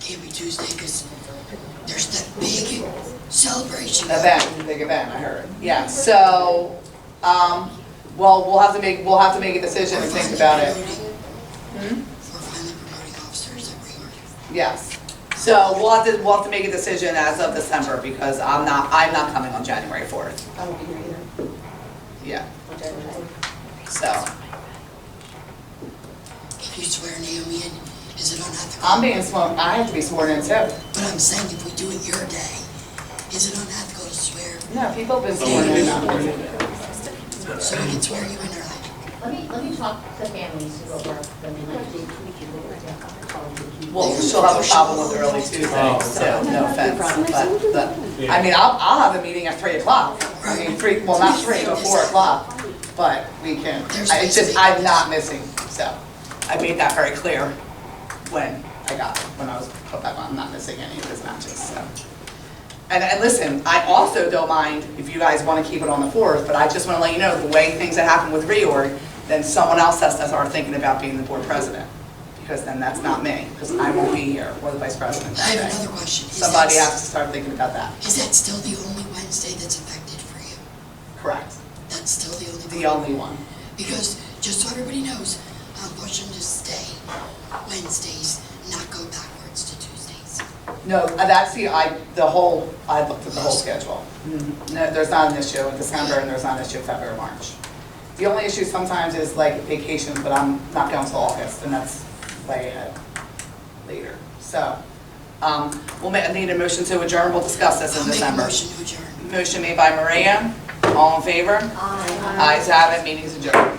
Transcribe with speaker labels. Speaker 1: can't be Tuesday because there's that big celebration.
Speaker 2: event, the big event, I heard. Yeah, so, um, well, we'll have to make, we'll have to make a decision and think about it. Hmm?
Speaker 1: We're finally promoting officers that we
Speaker 2: Yes. So we'll have to, we'll have to make a decision as of December because I'm not, I'm not coming on January fourth.
Speaker 3: I won't be here either.
Speaker 2: Yeah,
Speaker 3: Okay.
Speaker 2: so
Speaker 1: are. Can you swear Naomi in? Is it on unethical?
Speaker 2: I'm being sworn, I have to be sworn in too.
Speaker 1: But I'm saying if we do it your day, is it unethical to swear?
Speaker 2: No, people have been sworn in.
Speaker 1: So we can swear you in early.
Speaker 4: Let me, let me talk to families who are working, like, do you?
Speaker 2: Well, she'll have a problem with early Tuesday, so no offense, but, but, I mean, I'll, I'll have a meeting at three o'clock. I mean, three, well, not three, but four o'clock, but we can, I- it's just, I'm not missing, so. I made that very clear when I got, when I was put back on, I'm not missing any of his matches, so. And, and listen, I also don't mind if you guys wanna keep it on the fourth, but I just wanna let you know, the way things have happened with reorg, then someone else has to start thinking about being the board president, because then that's not me, because I won't be here, or the vice president
Speaker 1: I
Speaker 2: that
Speaker 1: have
Speaker 2: day.
Speaker 1: another question. Is that
Speaker 2: Somebody
Speaker 1: s-
Speaker 2: has to start thinking about that,
Speaker 1: Is that still the only Wednesday that's affected for you?
Speaker 2: correct,
Speaker 1: That's still the only one?
Speaker 2: the only one.
Speaker 1: Because, just so everybody knows, I'm pushing to stay Wednesdays, not go backwards to Tuesdays.
Speaker 2: No, uh, that's the, I, the whole, I looked at the whole schedule. No, there's not an issue in December and there's not an issue in February, or March. The only issue sometimes is like vacations, but I'm not going till August and that's way ahead later. So, um, we'll ma, I need a motion to adjourn, we'll discuss this in
Speaker 1: I'll make a
Speaker 2: December.
Speaker 1: motion to adjourn.
Speaker 2: uh, Motion made by Maria, all in favor? Ayes have it, meeting's adjourned.